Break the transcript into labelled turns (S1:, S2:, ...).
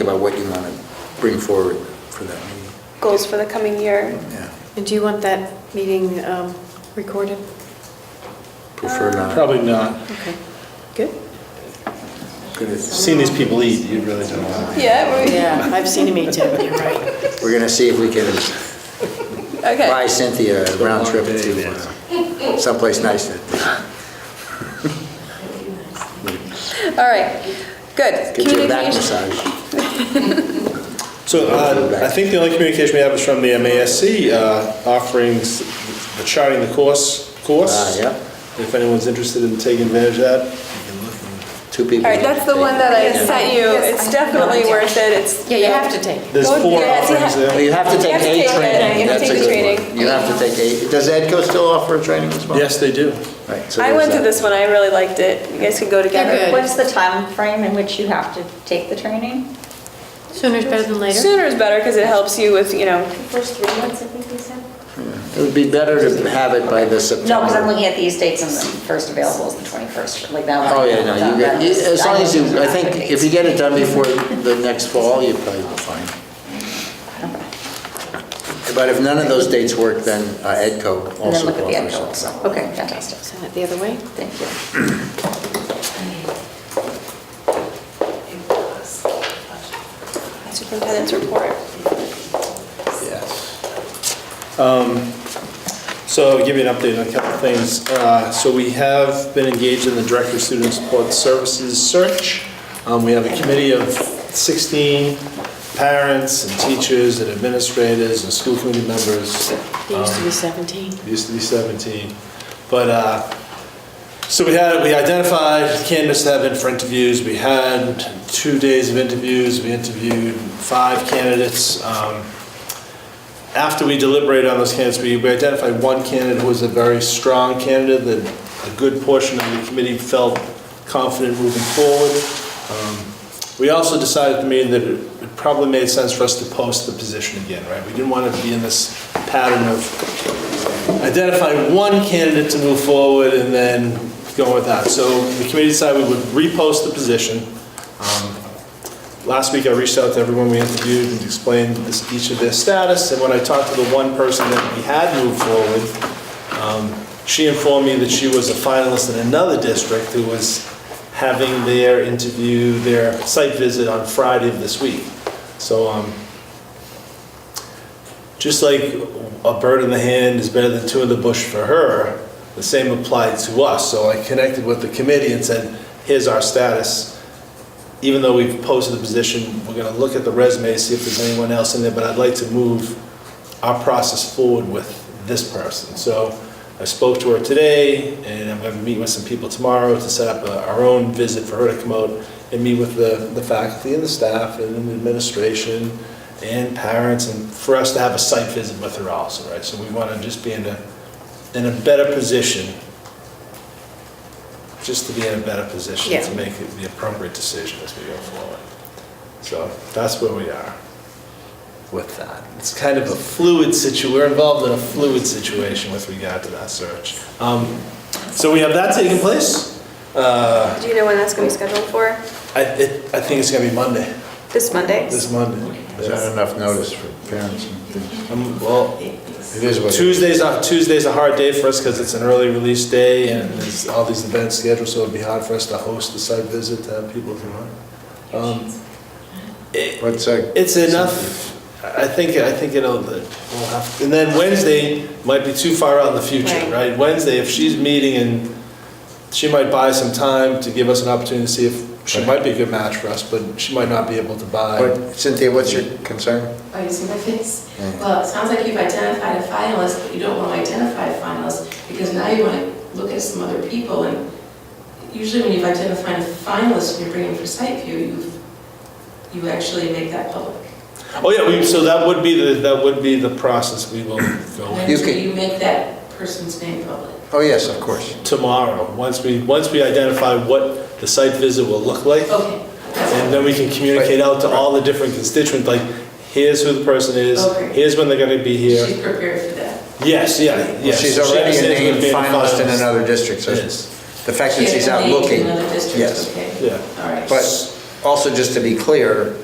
S1: about what you want to bring forward for that meeting.
S2: goals for the coming year.
S1: Yeah,
S3: And do you want that meeting um, recorded?
S1: prefer not.
S4: Probably not.
S3: Okay, good.
S1: Good, it's-
S4: Seeing these people eat, you really don't want to.
S2: Yeah, we-
S3: Yeah, I've seen him eat too, you're right.
S1: We're going to see if we can buy
S2: okay.
S1: Cynthia a round trip to uh, someplace nice. to-
S2: All right, good.
S1: Get you a back
S2: Communication.
S1: massage.
S4: So uh, I think the only communication we have is from the MASC uh, offering s- the charting the course, course.
S1: Ah, yeah.
S4: If anyone's interested in taking advantage of that.
S1: Two people.
S2: All right, that's the one that I
S3: Yes.
S2: sent you.
S3: Yes,
S2: It's
S3: I-
S2: definitely
S3: no, I-
S2: worth it. It's.
S3: Yeah, you have to take it.
S4: There's
S2: Go-
S4: four
S2: yes, you
S4: offerings
S2: have-
S1: You
S4: there.
S1: have to
S2: You
S1: take
S2: have to take
S1: a
S2: it, you
S1: training.
S2: have to
S1: That's a
S2: take the
S1: good one.
S2: training.
S1: You have to take a, does EdCo still offer a training as well?
S4: Yes, they do.
S1: Right, so
S2: I
S1: there's
S2: went to
S1: that.
S2: this one. I really liked it. You guys could go
S3: They're
S2: together.
S3: good.
S5: What's the time frame in which you have to take the training?
S3: Sooner is better than later.
S2: Sooner is better because it helps you with, you know,
S6: First three months, I think we said.
S1: It would be better to have it by the September.
S5: No, because I'm looking at these dates and the first available is the 21st, like that
S1: Oh,
S5: one.
S1: yeah, no, you get, you- as long as you, I think, if you get it done before the next fall, you probably will find. But if none of those dates work, then uh, EdCo
S5: And then
S1: also
S5: look at the end
S1: offers.
S5: goal,
S1: it.
S5: so, okay, fantastic,
S3: Send it the other way.
S5: thank you.
S2: superintendent's report.
S4: Yes. Um, So I'll give you an update on a couple of things. Uh, So we have been engaged in the Director of Student Support Services search. Um, We have a committee of 16 parents and teachers and administrators and school committee members.
S3: It used to be 17.
S4: It used to be 17. But, uh, so we had, we identified candidates that have been for interviews. We had two days of interviews. We interviewed five candidates. Um, After we deliberated on those candidates, we we identified one candidate who was a very strong candidate that a good portion of the committee felt confident moving forward. Um, We also decided at the meeting that it it probably made sense for us to post the position again, right? We didn't want to be in this pattern of identify one candidate to move forward and then go with that. So the committee decided we would repost the position. Um, Last week, I reached out to everyone we interviewed and explained this- each of their status, and when I talked to the one person that we had moved forward, um, she informed me that she was a finalist in another district who was having their interview, their site visit on Friday of this week. So um, just like a bird in the hand is better than two in the bush for her, the same applied to us. So I connected with the committee and said, here's our status. Even though we've posted the position, we're gonna look at the resumes, see if there's anyone else in there, but I'd like to move our process forward with this person. So I spoke to her today, and I'm gonna meet with some people tomorrow to set up a- our own visit for her to come out and meet with the, the faculty and the staff and the administration and parents, and for us to have a site visit with her also, right? So we want to just be in a, in a better position, just to be in a better position
S3: Yeah.
S4: to make the appropriate decision as we go forward. So that's where we are with that. It's kind of a fluid situ, we're involved in a fluid situation with regard to that search. Um, So we have that taking place. Uh,
S2: Do you know when that's going to be scheduled for?
S4: I, it- I think it's gonna be Monday,
S2: This Monday?
S4: this Monday.
S1: Is that enough notice for parents and things?
S4: Um, Well,
S1: It is what it is.
S4: Tuesday's a, Tuesday's a hard day for us because it's an early release day and there's all these events scheduled, so it'd be hard for us to host a site visit to have people come on. Um, it-
S1: What's that?
S4: It's enough, I think, I think it'll, we'll have, and then Wednesday might be too far out in the future,
S3: Right.
S4: right? Wednesday, if she's meeting and she might buy some time to give us an opportunity to see if, she
S1: Right.
S4: might be a good match for us, but she might not be able to buy.
S1: What- Cynthia, what's your concern?
S6: Oh, you see my face?
S1: Yeah.
S6: Well, it sounds like you've identified a finalist, but you don't want to identify a finalist because now you want to look at some other people. And usually when you've identified a finalist and you're bringing for site view, you, you actually make that public.
S4: Oh, yeah, we, so that would be the, that would be the process we will go
S6: And
S4: with.
S1: You
S6: then
S1: could-
S6: you make that person's name public.
S1: Oh, yes, of course.
S4: tomorrow, once we, once we identify what the site visit will look like,
S6: Okay.
S4: and then we can communicate out to all the different constituents, like, here's who the person is,
S6: Okay.
S4: here's when they're gonna be here.
S6: She's prepared for that.
S4: Yes, yeah,
S1: Well,
S4: yes.
S1: She's already a
S4: She understands
S1: named
S4: being a
S1: finalist in another district, so
S4: Yes.
S1: the fact that
S6: She
S1: she's
S6: has
S1: out
S6: named
S1: looking.
S6: Another district,
S1: Yes.
S6: okay.
S4: Yeah.
S6: All right.
S1: But also, just to be clear,